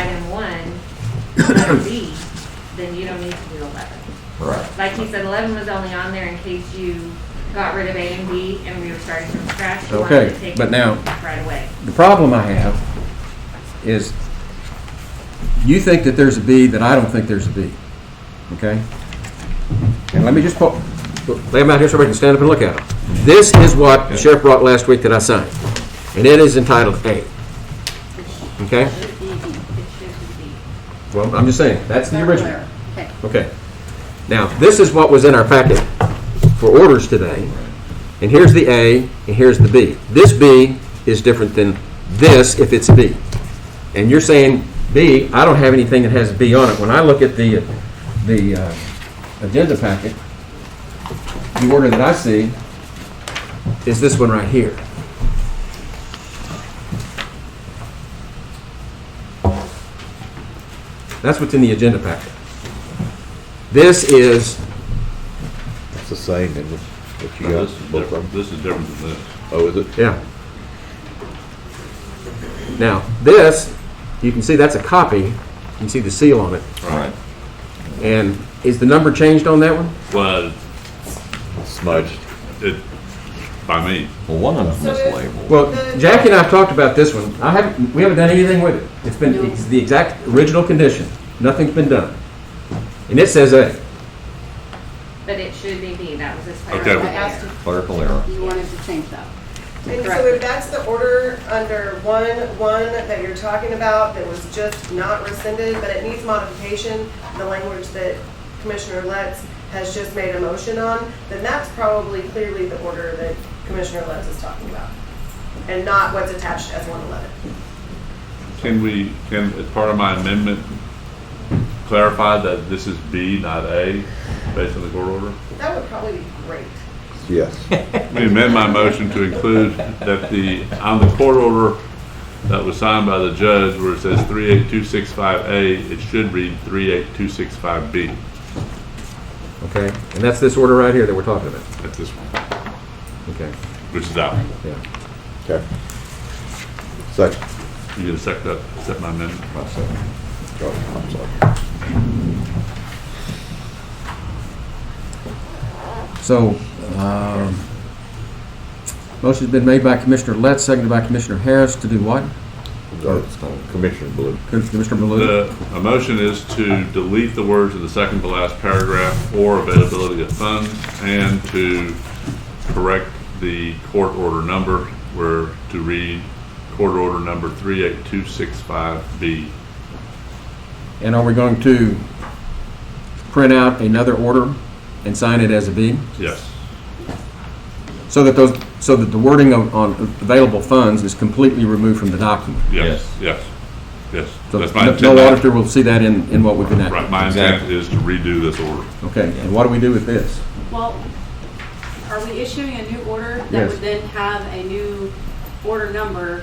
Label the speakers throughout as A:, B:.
A: letter B, then you don't need to do eleven.
B: Right.
A: Like he said, eleven was only on there in case you got rid of A and B and we were starting from scratch. You wanted to
C: Okay,
A: take
C: but
A: it
C: now-
A: Right away.
C: The problem I have is you think that there's a B that I don't think there's a B. Okay? And let me just po- lay them out here so everybody can stand up and look at them. This is what Sheriff brought last week that I signed, and it is entitled A. Okay?
A: It should be B. It should be B.
C: Well, I'm just saying, that's the original.
D: Okay.
C: Okay. Now, this is what was in our packet for orders today, and here's the A, and here's the B. This B is different than this if it's B. And you're saying B, I don't have anything that has B on it. When I look at the, the uh, agenda packet, the order that I see is this one right here. That's what's in the agenda packet. This is
B: It's the same in what you
E: Now,
B: got,
E: This is
B: both
E: different,
B: of them.
E: this is different than this.
B: Oh, is it?
C: Yeah. Now, this, you can see that's a copy. You can see the seal on it.
E: Right.
C: And is the number changed on that one?
E: Well,
B: Smudged.
E: it, by me,
B: Well, one of them is
F: So if-
B: labeled.
C: Well, Jackie and I have talked about this one. I haven't, we haven't done anything with it. It's been, it's the exact original condition. Nothing's been done. And it says A.
A: But it should be B. That was his
E: Okay.
D: I
A: priority.
D: asked if
B: Clerical error.
D: you wanted to change that.
F: And so if that's the order under one, one that you're talking about, that was just not rescinded, but it needs modification, the language that Commissioner Letts has just made a motion on, then that's probably clearly the order that Commissioner Letts is talking about, and not what's attached as one eleven.
E: can we, can, as part of my amendment, clarify that this is B, not A, based on the court order?
F: That would probably be great.
B: Yes.
E: We amend my motion to include that the, on the court order that was signed by the judge where it says 38265A, it should read 38265B.
C: Okay? And that's this order right here that we're talking about.
E: That's this one,
C: Okay,
E: which is out.
C: yeah.
B: Okay. Second.
E: You gonna second that, accept my amendment?
B: My second. Go ahead. I'm sorry.
C: So, um, motion's been made by Commissioner Letts, seconded by Commissioner Harris to do what?
B: No, it's not. Commissioner Blue.
C: Commissioner Baloo?
E: The, a motion is to delete the words of the second to last paragraph, or availability of funds, and to correct the court order number, where to read court order number 38265B.
C: And are we going to print out another order and sign it as a B?
E: Yes,
C: So that those, so that the wording of, on available funds is completely removed from the document?
E: yes, yes, yes.
C: So
E: That's my
C: no- No
E: intent.
C: auditor will see that in, in what we've enacted?
E: Right, my intent is to redo this order.
C: Okay, and what do we do with this?
D: Well, are we issuing a new order that
C: Yes.
D: would then have a new order number?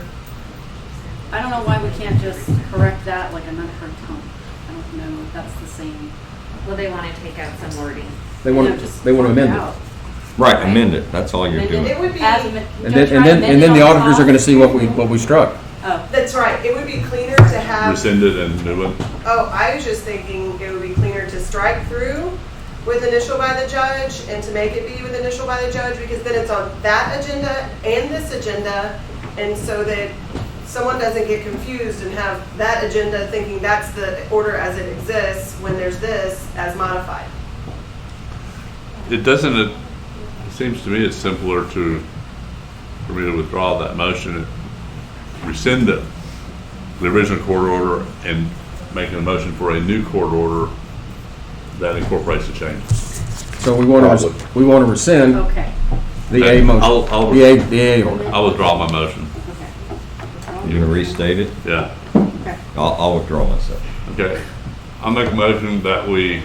D: I don't know why we can't just correct that like another time. I don't know if that's the same.
A: Well, they want to take out some wording.
C: They want,
D: you know,
C: to
D: just
C: they want to
D: point
C: amend
D: out.
C: it.
B: Right, amend it. That's all you're
D: Amend
F: It would be,
D: As amend-
C: And
D: don't
C: then, and
D: try to
C: then,
D: amend
C: and then
D: it
C: the
D: on
C: auditors are
D: top.
C: going to see what we, what we struck.
D: Oh,
F: that's right, it would be cleaner to have
E: Rescind it and new one.
F: Oh, I was just thinking it would be cleaner to strike through with initial by the judge and to make it be with initial by the judge because then it's on that agenda and this agenda. And so that someone doesn't get confused and have that agenda thinking that's the order as it exists when there's this as modified.
E: It doesn't, it seems to me it's simpler to, for me to withdraw that motion, and rescind the, the original court order and make a motion for a new court order that incorporates the changes.
C: So we want to,
B: Probably.
C: we want to rescind
D: okay,
C: the A motion,
E: I'll, I'll,
C: the A, the A order.
E: I'll withdraw my motion,
D: okay.
B: You're gonna restate it?
E: yeah.
B: I'll, I'll withdraw myself.
E: Okay, I'll make a motion that we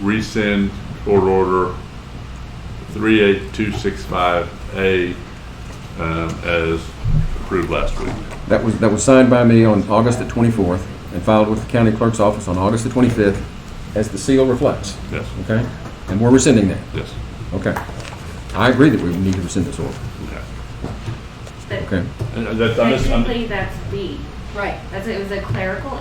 E: rescind court order 38265A um, as approved last week.
C: That was, that was signed by me on August the 24th and filed with the county clerk's office on August the 25th, as the seal reflects,
E: Yes,
C: okay? And we're rescinding that,
E: yes.
C: okay? I agree that we need to rescind this order,
E: Okay.
A: But
C: okay?
E: And that's- I'm just- I'm-
A: technically, that's B.
D: Right.
A: That's, it was a clerical